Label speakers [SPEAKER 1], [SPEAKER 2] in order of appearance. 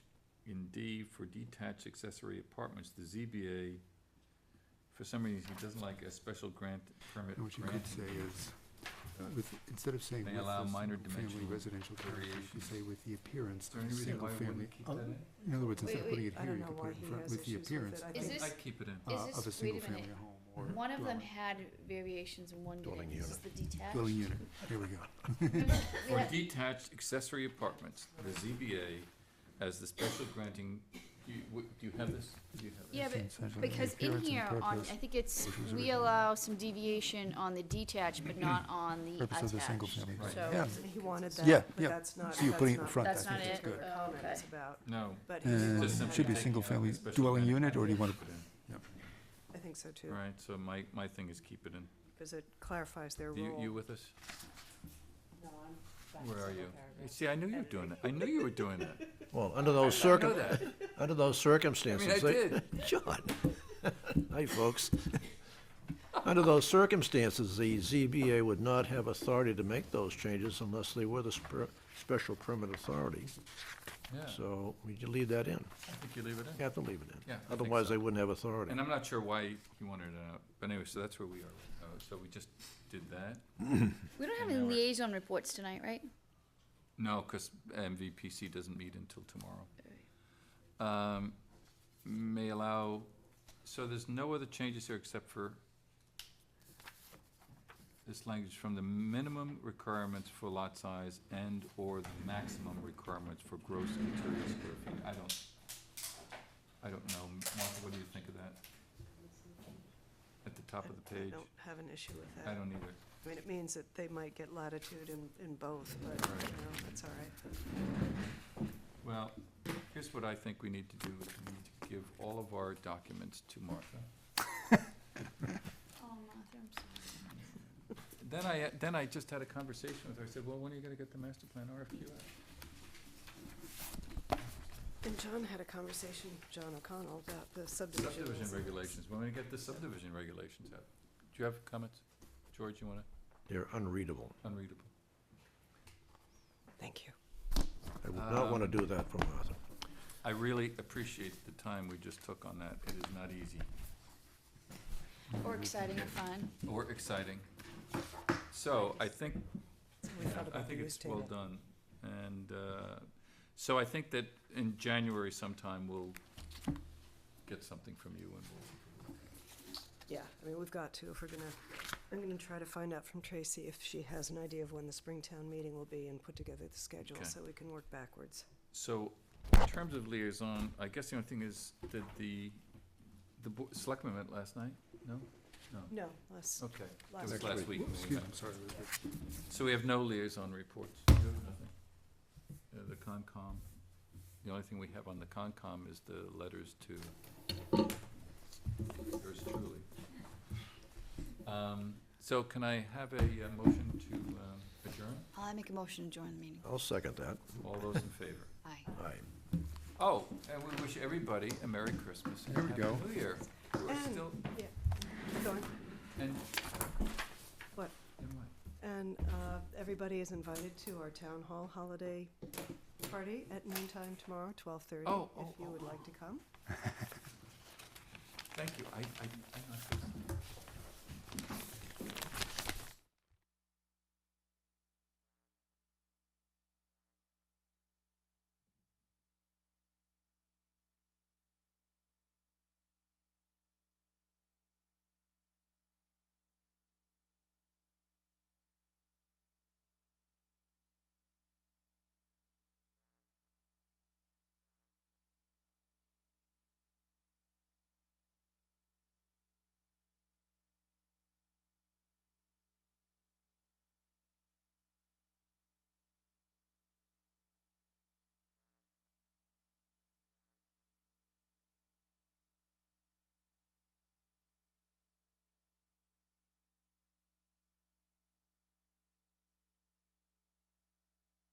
[SPEAKER 1] in D for detached accessory apartments, the ZBA, for some reason, he doesn't like a special grant permit
[SPEAKER 2] What you
[SPEAKER 1] granting
[SPEAKER 2] could say is, uh, with, instead of saying
[SPEAKER 1] They
[SPEAKER 2] with the
[SPEAKER 1] allow minor
[SPEAKER 2] single-family
[SPEAKER 1] dimensional
[SPEAKER 2] residential development, you
[SPEAKER 1] variations.
[SPEAKER 2] say with the appearance
[SPEAKER 1] Is there
[SPEAKER 2] of
[SPEAKER 1] any
[SPEAKER 2] a
[SPEAKER 1] reason why we
[SPEAKER 2] single-family.
[SPEAKER 1] wouldn't keep that
[SPEAKER 2] uh,
[SPEAKER 1] in?
[SPEAKER 3] Oh,
[SPEAKER 2] In other words, instead of
[SPEAKER 3] Wait,
[SPEAKER 2] putting
[SPEAKER 3] wait,
[SPEAKER 2] it
[SPEAKER 3] I
[SPEAKER 2] here,
[SPEAKER 3] don't
[SPEAKER 2] you
[SPEAKER 3] know
[SPEAKER 2] could
[SPEAKER 3] why
[SPEAKER 2] put it
[SPEAKER 3] he
[SPEAKER 2] in front
[SPEAKER 3] has
[SPEAKER 2] with the
[SPEAKER 3] issues with
[SPEAKER 2] appearance
[SPEAKER 3] it. I
[SPEAKER 1] I'd-
[SPEAKER 3] Is
[SPEAKER 2] of-
[SPEAKER 3] think-
[SPEAKER 1] I'd keep it in.
[SPEAKER 3] is
[SPEAKER 2] uh, of a
[SPEAKER 3] this- wait a minute.
[SPEAKER 2] single-family home or dwelling.
[SPEAKER 3] One of them had variations in one
[SPEAKER 4] Dwelling
[SPEAKER 3] unit, this is the detached.
[SPEAKER 2] Dwelling unit, here we go.
[SPEAKER 1] For
[SPEAKER 3] Yeah.
[SPEAKER 1] detached accessory apartments, the ZBA has the special granting, do you, w- do you have this? Do you have this?
[SPEAKER 3] Yeah, but
[SPEAKER 2] Essentially, the
[SPEAKER 3] because in
[SPEAKER 2] appearance and
[SPEAKER 3] here, on, I
[SPEAKER 2] purpose-
[SPEAKER 3] think it's,
[SPEAKER 2] which was
[SPEAKER 3] we
[SPEAKER 2] originally-
[SPEAKER 3] allow some deviation on the detached, but not on the
[SPEAKER 2] Purpose of the
[SPEAKER 3] attached.
[SPEAKER 2] single-family.
[SPEAKER 1] Right.
[SPEAKER 3] So,
[SPEAKER 2] Yeah.
[SPEAKER 5] He wanted
[SPEAKER 2] Yeah,
[SPEAKER 5] that, but
[SPEAKER 2] yeah.
[SPEAKER 5] that's not,
[SPEAKER 2] So you're putting it in
[SPEAKER 5] that's
[SPEAKER 2] front,
[SPEAKER 5] not,
[SPEAKER 3] that's
[SPEAKER 2] I
[SPEAKER 3] not
[SPEAKER 2] think that's
[SPEAKER 3] it,
[SPEAKER 2] good.
[SPEAKER 3] oh, okay.
[SPEAKER 5] comments about,
[SPEAKER 1] No.
[SPEAKER 5] but he
[SPEAKER 2] Uh,
[SPEAKER 1] Just
[SPEAKER 2] Should be
[SPEAKER 5] wanted
[SPEAKER 1] simply
[SPEAKER 5] that-
[SPEAKER 1] taking out the
[SPEAKER 2] single-family
[SPEAKER 1] special
[SPEAKER 2] dwelling
[SPEAKER 1] grant
[SPEAKER 2] unit, or do you want to,
[SPEAKER 1] put it in.
[SPEAKER 5] I think so too,
[SPEAKER 1] All Right, so my, my thing is keep it in.
[SPEAKER 5] because it clarifies their
[SPEAKER 1] You, you
[SPEAKER 5] role.
[SPEAKER 1] with us? Where are you? See, I knew you were doing that. I knew you were doing that.
[SPEAKER 4] Well, under those
[SPEAKER 1] I know
[SPEAKER 4] circum,
[SPEAKER 1] that.
[SPEAKER 4] under those
[SPEAKER 1] I
[SPEAKER 4] circumstances.
[SPEAKER 1] mean, I
[SPEAKER 4] they-
[SPEAKER 1] did.
[SPEAKER 4] John. Hi, folks. Under those circumstances, the ZBA would not have authority to make those changes unless they were the spe- special permit authority.
[SPEAKER 1] Yeah,
[SPEAKER 4] So we can leave that in.
[SPEAKER 1] I think you leave it
[SPEAKER 4] You
[SPEAKER 1] in.
[SPEAKER 4] have to leave it in.
[SPEAKER 1] Yeah, I think
[SPEAKER 4] Otherwise,
[SPEAKER 1] so.
[SPEAKER 4] they wouldn't have authority.
[SPEAKER 1] And I'm not sure why he wanted it out, but anyway, so that's where we are. right now. So we just did that?
[SPEAKER 3] we don't have
[SPEAKER 1] And
[SPEAKER 3] any
[SPEAKER 1] now we're-
[SPEAKER 3] liaison reports tonight, right?
[SPEAKER 1] No, because MVPC doesn't meet until tomorrow.
[SPEAKER 3] Alright.
[SPEAKER 1] Um, May allow, so there's no other changes here except for this language from the minimum requirements for lot size and/or the maximum requirements for gross interior square feet. I don't, I don't know. Martha, what do you think of that? At the top of the
[SPEAKER 5] I- I
[SPEAKER 1] page?
[SPEAKER 5] don't have an issue with
[SPEAKER 1] I
[SPEAKER 5] that.
[SPEAKER 1] don't either.
[SPEAKER 5] I mean, it means that they might get latitude in, in both, but, you
[SPEAKER 1] Right.
[SPEAKER 5] know, that's all right.
[SPEAKER 1] Well, here's what I think we need to do, is we need to give all of our documents to Martha.
[SPEAKER 3] Oh, Martha, I'm sorry.
[SPEAKER 1] Then I, then I just had a conversation with her, I said, well, when are you gonna get the master plan RFQ out?
[SPEAKER 5] And John had a conversation, John O'Connell, about the subdivision.
[SPEAKER 1] Subdivision regulations, when are we gonna get the subdivision regulations out? Do you have comments? George, you wanna,
[SPEAKER 4] They're unreadable.
[SPEAKER 1] unreadable.
[SPEAKER 5] Thank you.
[SPEAKER 4] I would not want
[SPEAKER 1] Um,
[SPEAKER 4] to do that for Martha.
[SPEAKER 1] I really appreciate the time we just took on that, it is not easy,
[SPEAKER 3] Or exciting or fun.
[SPEAKER 1] or exciting. So, I think Yeah,
[SPEAKER 5] We thought
[SPEAKER 1] I
[SPEAKER 5] about the
[SPEAKER 1] think
[SPEAKER 5] use
[SPEAKER 1] it's well
[SPEAKER 5] table.
[SPEAKER 1] done. And uh, so I think that in January sometime, we'll get something from you and we'll,
[SPEAKER 5] Yeah, I mean, we've got to, if we're gonna, I'm gonna try to find out from Tracy if she has an idea of when the Springtown meeting will be and put together the schedule
[SPEAKER 1] Okay.
[SPEAKER 5] so we can work backwards.
[SPEAKER 1] so in terms of liaison, I guess the only thing is, did the, the bo- selectmen met last night? No? No?
[SPEAKER 5] No, less,
[SPEAKER 1] Okay. It
[SPEAKER 5] Last
[SPEAKER 1] was
[SPEAKER 5] week.
[SPEAKER 1] last week. when we
[SPEAKER 2] excuse me,
[SPEAKER 1] met.
[SPEAKER 2] I'm sorry, Elizabeth.
[SPEAKER 1] So we have no liaison reports. You have nothing? Uh, The Concom, the only thing we have on the Concom is the letters to yours truly. Um, So can I have a uh, motion to um, adjourn?
[SPEAKER 3] I make a motion to join the meeting.
[SPEAKER 4] I'll second that.
[SPEAKER 1] All those in favor?
[SPEAKER 3] Aye.
[SPEAKER 4] Aye.
[SPEAKER 1] Oh, and we wish everybody a Merry Christmas and
[SPEAKER 2] There we
[SPEAKER 1] Happy
[SPEAKER 2] go.
[SPEAKER 1] New Year. We're
[SPEAKER 5] And-
[SPEAKER 1] still,
[SPEAKER 5] go on.
[SPEAKER 1] and.
[SPEAKER 5] What?
[SPEAKER 1] And what?
[SPEAKER 5] And uh, everybody is invited to our town hall holiday party at noontime tomorrow, twelve thirty,
[SPEAKER 1] Oh,
[SPEAKER 5] if
[SPEAKER 1] oh,
[SPEAKER 5] you
[SPEAKER 1] oh,
[SPEAKER 5] would
[SPEAKER 1] oh.
[SPEAKER 5] like to come.
[SPEAKER 1] Thank you, I, I, I'm not.